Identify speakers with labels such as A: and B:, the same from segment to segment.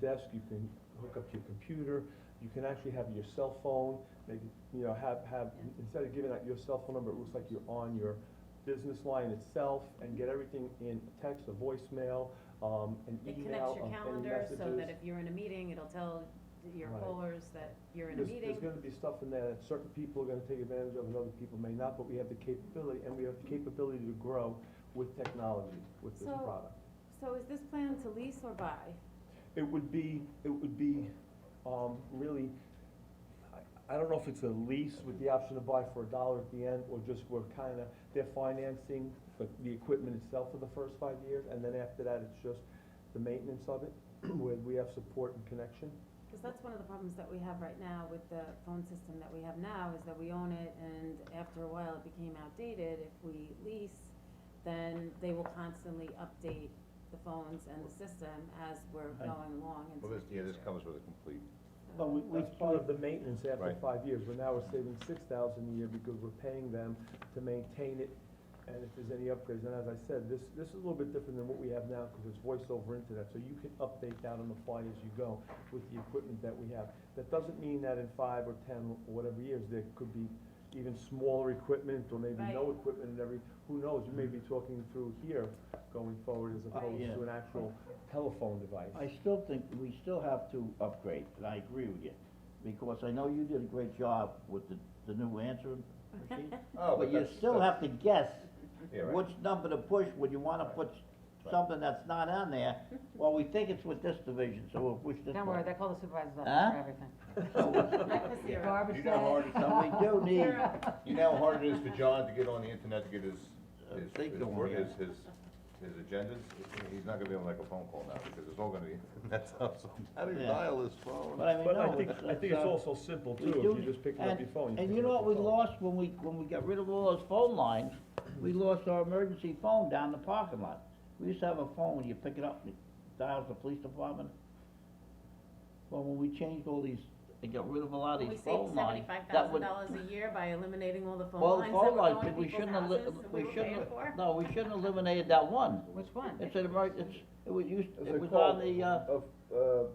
A: desk, you can hook up to your computer, you can actually have your cell phone, maybe, you know, have, have,
B: Yeah.
A: instead of giving out your cell phone number, it looks like you're on your business line itself, and get everything in text, a voicemail, um, an
B: It
A: email,
B: connects your
A: um, any
B: calendar
A: messages.
B: so that if you're in a meeting, it'll tell your
A: Right.
B: callers that you're in a
A: There's-
B: meeting.
A: There's gonna be stuff in there that certain people are gonna take advantage of and other people may not, but we have the capability, and we have the capability to grow with technology, with this
C: So-
A: product.
C: So is this plan to lease or buy?
A: It would be, it would be, um, really, I, I don't know if it's a lease with the option to buy for a dollar at the end, or just we're kinda, they're financing the, the equipment itself for the first five years, and then after that, it's just the maintenance of it, where we have support and connection.
C: Because that's one of the problems that we have right now with the phone system that we have now, is that we own it, and after a while, it became outdated. If we lease, then they will constantly update the phones and the system as we're
A: Right.
C: going along into
D: Well,
C: the
D: this, yeah, this
C: future.
D: comes with a complete,
A: But we,
C: So-
A: we, part of the maintenance after
D: Right.
A: five years, we're now we're saving six thousand a year because we're paying them to maintain it, and if there's any upgrades, and as I said, this, this is a little bit different than what we have now, cause it's voice over internet, so you can update that on the fly as you go with the equipment that we have. That doesn't mean that in five or ten or whatever years, there could be even smaller equipment, or maybe no
C: Right.
A: equipment and every, who knows, you may be talking through here going forward as
C: Right.
A: opposed to
E: Yeah.
A: an actual telephone device.
E: I still think we still have to upgrade, and I agree with you, because I know you did a great job with the, the new answering machine.
D: Oh, but
E: But you
D: that's-
E: still have
D: that's-
E: to guess
D: yeah, right.
E: which number to push when you wanna
D: Right.
E: put something that's not on there. Well, we think it's with this division, so we'll push this
F: Don't worry,
E: one.
F: they call the supervisor's
E: Huh?
F: office for everything.
C: Breakfast
D: Yeah.
C: zero.
D: You know how hard it-
E: So we do need,
D: You know how hard it is for John to get on the internet to get his,
E: Uh,
D: his,
E: think
D: his
E: of
D: work,
E: one,
D: his, his, his agendas, he's not gonna be able to make a phone call now, because it's all gonna be, that's how, how do you
E: Yeah.
D: dial his phone?
E: but I mean,
A: But
E: no,
A: I think,
E: it's-
A: I think it's
E: uh,
A: also simple
E: we
A: too, if
E: do-
A: you're just picking up
E: and-
A: your phone.
E: And
A: pick
E: you know
A: up
E: what we
A: your phone.
E: lost when we, when we got rid of all those phone lines? We lost our emergency phone down the parking lot. We used to have a phone, when you pick it up, and it dials the police department. Well, when we changed all these, and got rid of a lot of
C: We
E: these
C: saved
E: phone lines.
C: seventy-five
E: that
C: thousand
E: would-
C: dollars a year by eliminating all the phone
E: Well, the
C: lines that
E: phone
C: were
E: lines,
C: going to
E: but we
C: people's
E: shouldn't,
C: houses,
E: eli-
C: that we
E: we
C: were paying
E: shouldn't,
C: for.
E: no, we shouldn't eliminate that one.
F: Which one?
E: It's an emerg, it's, it was used, it was on the, uh,
G: Of, uh,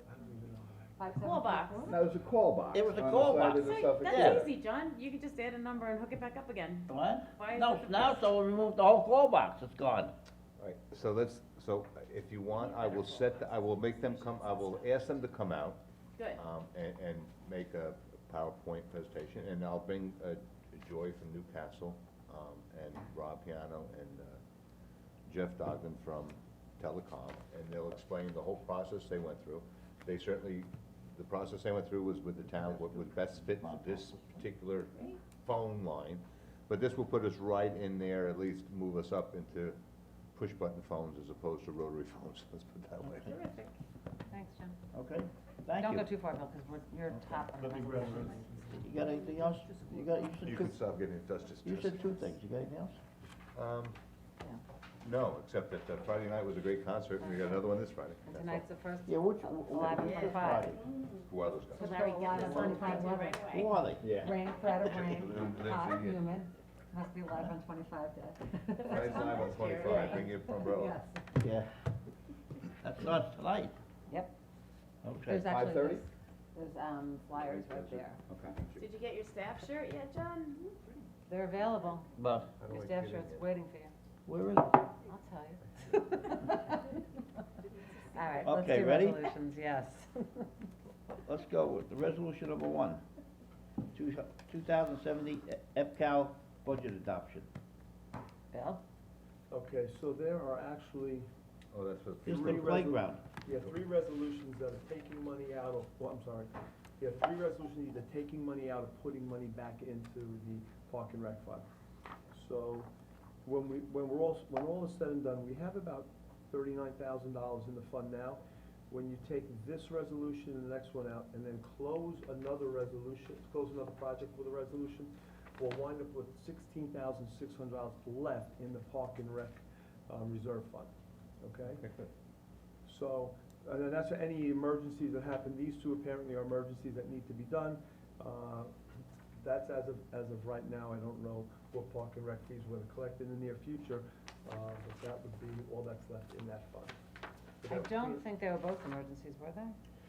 F: Five seven
C: Call
F: two
C: box.
F: four?
G: no, it was a call box.
E: It was a
G: on the
E: call
G: side
E: box.
G: of the
C: That's
G: Suffolk
C: like-
E: yeah.
G: River.
C: That's easy, John, you could just add a number and hook it back up again.
E: what?
C: Why is
E: No,
C: it the
E: now,
C: first-
E: so we removed the whole call box, it's gone.
D: Right, so let's, so if you want, I will set, the- I will make them come, I will ask them to come out,
C: Good.
D: um, and, and make a PowerPoint presentation, and I'll bring, uh, Joy from Newcastle, um, and Rob Piano and, uh, Jeff Dogden from Telecom, and they'll explain the whole process they went through. They certainly, the process they went through was with the town, what would best fit for this particular phone line, but this will put us right in there, at least move us up into push-button phones as opposed to rotary phones, let's put it that way.
C: Terrific.
F: Thanks, Jim.
E: Okay, thank you.
F: Don't go too far, Bill, because we're, you're top on the resolution.
E: You got anything else? You got, you
D: You
E: said two,
D: can stop getting in touch just.
E: you said two things, you got anything else?
D: Um, no, except that uh, Friday night was a great concert, and we got another one this Friday.
F: And
D: That's all.
F: tonight's the first,
E: Yeah, which,
F: eleven
E: wh-
F: for five.
D: Who are those guys?
F: With Larry Gaddis on five
C: Thank you
F: eleven.
C: right away.
E: who are they?
A: Yeah.
F: Rain, threat of
D: Little-
F: rain,
D: little
F: hot,
D: Ziggy.
F: humid, must be live on twenty-five day.
C: one
D: Friday's live on
C: last year,
D: twenty-five,
C: right?
D: bring your umbrella.
E: Yeah. That's not tonight.
F: Yep.
E: Okay.
F: There's actually,
G: 5:30?
F: there's, there's, um, flyers right there.
C: Did you get your staff shirt yet, John?
F: They're available.
E: But
D: How do
F: Your
D: I
F: staff
D: get in
F: shirt's
D: here?
F: waiting for you.
E: where is it?
F: I'll tell you. All right, let's
E: Okay,
F: do
E: ready?
F: resolutions, yes.
E: Let's go with the resolution number one, two, two thousand seventy EPCAL budget adoption.
F: Bill?
A: Okay, so there are actually,
D: Oh, that's what.
E: It's the
A: Three resol-
E: playground.
A: you have three resolutions that are taking money out of, well, I'm sorry. You have three resolutions either taking money out or putting money back into the park and rec fund. So when we, when we're all, when all is said and done, we have about thirty-nine thousand dollars in the fund now. When you take this resolution and the next one out, and then close another resolution, close another project with a resolution, we'll wind up with sixteen thousand six hundred dollars left in the park and rec, um, reserve fund, okay? So, and then that's for any emergencies that happen, these two apparently are emergencies that need to be done. Uh, That's as of, as of right now, I don't know what park and rec fees we're gonna collect in the near future, uh, but that would be all that's left in that fund. But
F: I
A: that would be
F: don't
A: it.
F: think they were both emergencies, were they?